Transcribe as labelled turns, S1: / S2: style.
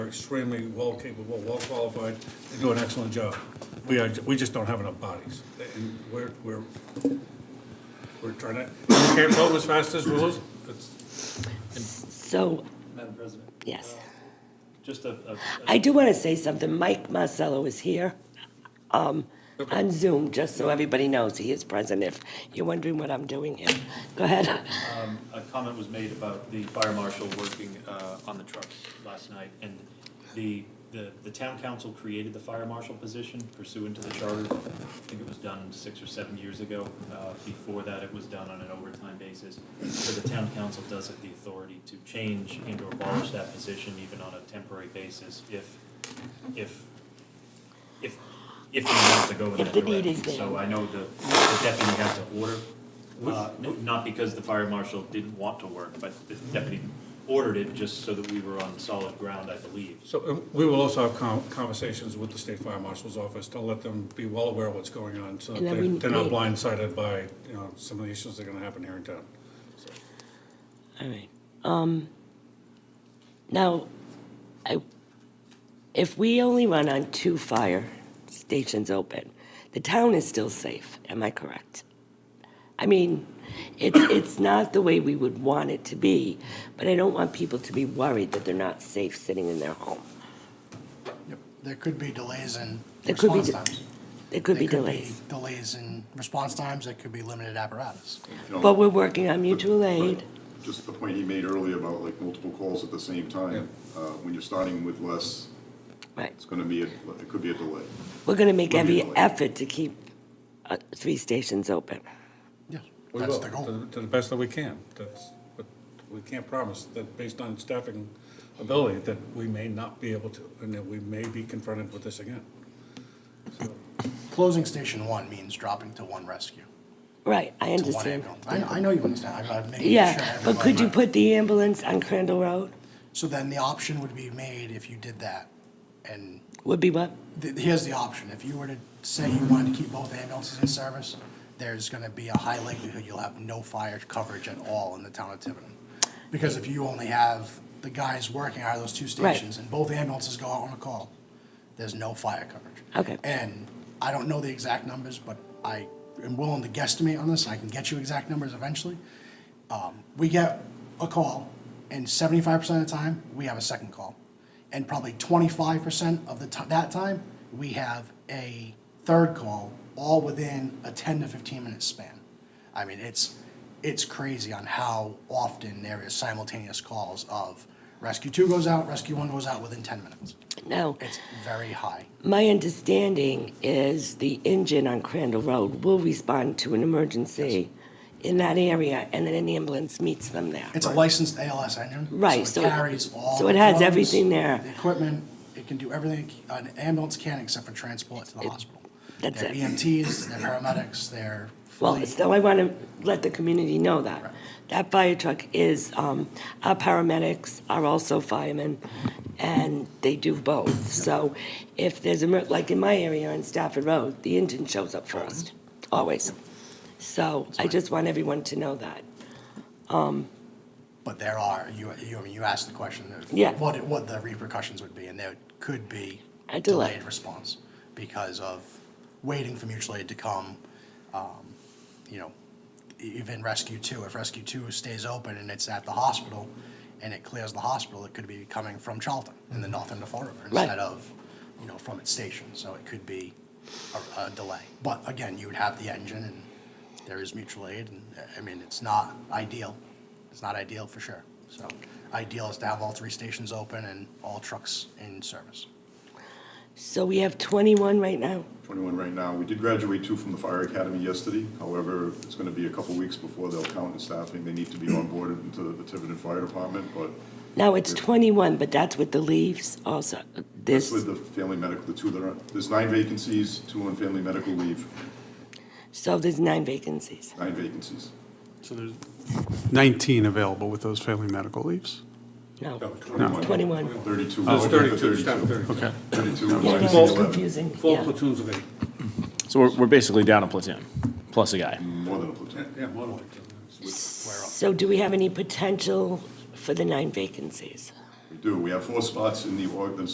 S1: extremely well capable, well qualified, they do an excellent job. We are, we just don't have enough bodies, and we're, we're, we're trying to, we can't vote as fast as we lose. It's-
S2: So,
S3: Madam President,
S2: yes.
S3: just a, a-
S2: I do want to say something. Mike Marcello is here um, on Zoom, just so everybody knows he is present if you're wondering what I'm doing here. Go ahead.
S3: a comment was made about the fire marshal working uh, on the trucks last night. And the, the, the town council created the fire marshal position pursuant to the charter. I think it was done six or seven years ago. Uh, Before that, it was done on an overtime basis. So the town council does have the authority to change and or abolish that position even on a temporary basis if, if, if, if we have to go in
S2: If
S3: that
S2: the need is
S3: direction. So
S2: there.
S3: I know the the deputy had to order, uh, n- not because the fire marshal didn't want to work, but the deputy ordered it just so that we were on solid ground, I believe.
S1: So, and we will also have con- conversations with the state fire marshal's office to let them be well aware of what's going on, so that
S2: And then
S1: they-
S2: we-
S1: they're not
S2: we-
S1: blindsided by, you know, some of the issues that are gonna happen here in town.
S2: All right. Um, now, I, if we only run on two fire stations open, the town is still safe. Am I correct? I mean, it's it's not the way we would want it to be, but I don't want people to be worried that they're not safe sitting in their home.
S4: Yep, There could be delays in
S2: There could be
S4: response
S2: de-
S4: times.
S2: There could be
S4: There
S2: delays,
S4: Delays in response times, there could be limited apparatus.
S5: you know,
S2: but we're working on mutual aid.
S5: but Just the point he made earlier about like multiple calls at the same time, uh, when you're starting with less,
S2: Right.
S5: it's gonna be, a it could be a delay.
S2: We're going to make
S5: We'll be
S2: every
S5: delayed.
S2: effort to keep uh, three stations open.
S4: Yes,
S1: We
S4: that's
S1: will,
S4: the
S1: To
S4: goal.
S1: the- to the best that we can. That's, but we can't promise that based on staffing ability, that we may not be able to, and that we may be confronted with this again.
S4: Closing station one means dropping to one rescue,
S2: Right, I
S4: to one
S2: understand.
S4: ambulance. I, I know you understand, I'm- I'm making sure.
S2: Yeah, but could you
S4: everybody-
S2: put the ambulance on Crandall Road?
S4: So then the option would be made if you did that. And
S2: Would be what?
S4: th- here's the option, if you were to say you wanted to keep both ambulances in service, there's gonna be a high likelihood you'll have no fire coverage at all in the town of Tiverton. Because if you only have the guys working out of those two
S2: Right.
S4: stations and both ambulances go out on a call, there's no fire coverage.
S2: Okay.
S4: And I don't know the exact numbers, but I am willing to guesstimate on this, I can get you exact numbers eventually. Um, we get a call and seventy-five percent of the time, we have a second call. And probably twenty-five percent of the ti- that time, we have a third call, all within a ten to fifteen minute span. I mean, it's, it's crazy on how often there is simultaneous calls of rescue two goes out, rescue one goes out within ten minutes.
S2: No,
S4: It's very high.
S2: my understanding is the engine on Crandall Road will respond to an emergency in that area, and then an ambulance meets them there.
S4: It's a licensed ALS engine.
S2: Right, so
S4: So
S2: it-
S4: it carries all.
S2: so it
S4: the
S2: has
S4: drugs,
S2: everything there.
S4: The equipment, it can do everything an ambulance can except for transport to the hospital.
S2: that's
S4: They're
S2: it.
S4: EMTs, they're paramedics, they're
S2: Well,
S4: fully,
S2: still, I want to let the community know that. That fire truck is, um, our paramedics are also firemen, and they do both. So if there's a, mer- like in my area on Stafford Road, the engine shows up first, always. So I just want everyone to know that.
S4: but there are, you, you, I mean, you asked the question of
S2: Yeah.
S4: what, it- what the repercussions would be, and there could be
S2: A delay.
S4: delayed response because of waiting for mutual aid to come, um, you know, e- even rescue two, if rescue two stays open and it's at the hospital and it clears the hospital, it could be coming from Charlton in the north end of Fall River
S2: Right.
S4: instead of, you know, from its station, so it could be a, a delay. But again, you would have the engine and there is mutual aid and, I mean, it's not ideal. It's not ideal for sure, so ideal is to have all three stations open and all trucks in service.
S2: So we have 21 right now?
S5: Twenty-one right now, we did graduate two from the fire academy yesterday, however, it's gonna be a couple weeks before they'll count in staffing, they need to be onboarded into the Tiverton Fire Department, but
S2: Now, it's 21, but that's with the leaves also.
S5: that's
S2: This,
S5: with the family medical, the two that are, there's nine vacancies, two on family medical leave,
S2: so there's nine vacancies.
S5: nine vacancies.
S6: So there's
S7: 19 available with those family medical leaves.
S2: No,
S5: Oh,
S1: No,
S5: 21.
S2: 21.
S5: Thirty-two.
S1: There's
S5: looking for
S1: thirty-two, staff thirty-two.
S6: Okay.
S5: Thirty-two.
S2: Yeah,
S5: vacancies,
S2: that's
S1: Well,
S5: eleven.
S2: confusing.
S1: Four
S2: yeah.
S1: platoons of eight,
S8: So we're, we're basically down a platoon, plus a guy.
S5: More than a platoon.
S1: yeah, more than
S2: So do we have any potential for the nine vacancies?
S5: We do. We have four spots in the org- the